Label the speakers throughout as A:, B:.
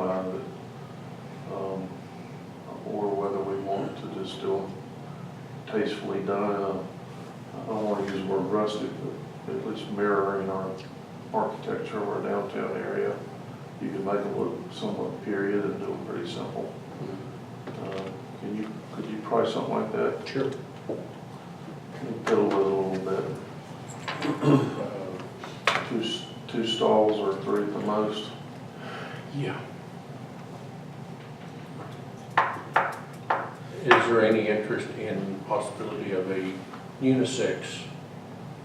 A: um, is still tastefully done, in a- I don't wanna use the word rustic, but at least mirroring our architecture of our downtown area. You can make them look somewhat period and do them pretty simple. Uh, Can you, could you price something like that?
B: Sure.
A: Can you Fiddle with it a little bit. Two, s- two stalls or three at the most.
B: Yeah. Is there any interest in possibility of a unisex?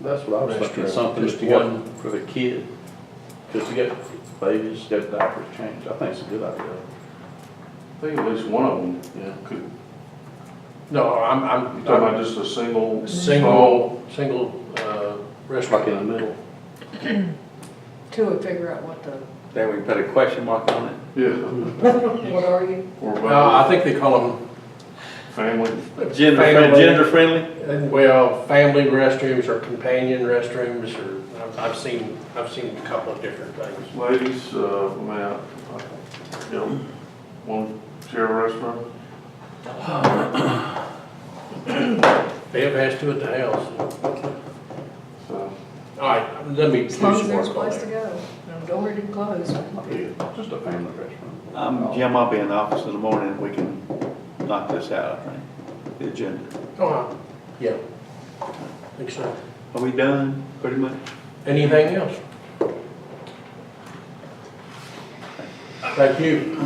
C: That's what I was thinking,
B: Restaurant,
C: something
B: just
C: that you got
B: one.
C: for the kid, just to get babies, get diapers changed, I think it's a good idea.
A: I think at least one of them
C: Yeah.
A: could,
B: No, I'm,
A: you
B: I'm
A: talking
B: talking
A: about just a single?
B: single, single, uh,
C: Like in the
B: restaurant.
C: middle,
D: Till we figure out what the,
C: then we put a question mark on it.
A: Yeah,
D: what are you?
A: or
B: Well, I
A: about
B: think they call
A: family,
B: them.
C: Gender,
B: family-
C: friendly- gender friendly?
B: Well, family restrooms or companion restrooms or, I've, I've seen, I've seen a couple of different things.
A: ladies, uh, I mean, I- I- you know, one chair restaurant,
B: Bev has two at the house.
A: so,
B: All right, let me do
D: As
B: some
D: long
B: work
D: as there's a
B: on
D: place to
B: that.
D: go. No, Don't worry, it's closed.
A: yeah.
C: Just a family restaurant.
E: Um, Jim, I'll be in the office in the morning, we can knock this out, I think, the agenda.
B: Oh, yeah. Think so.
E: Are we done, pretty much?
B: Anything else? Thank you.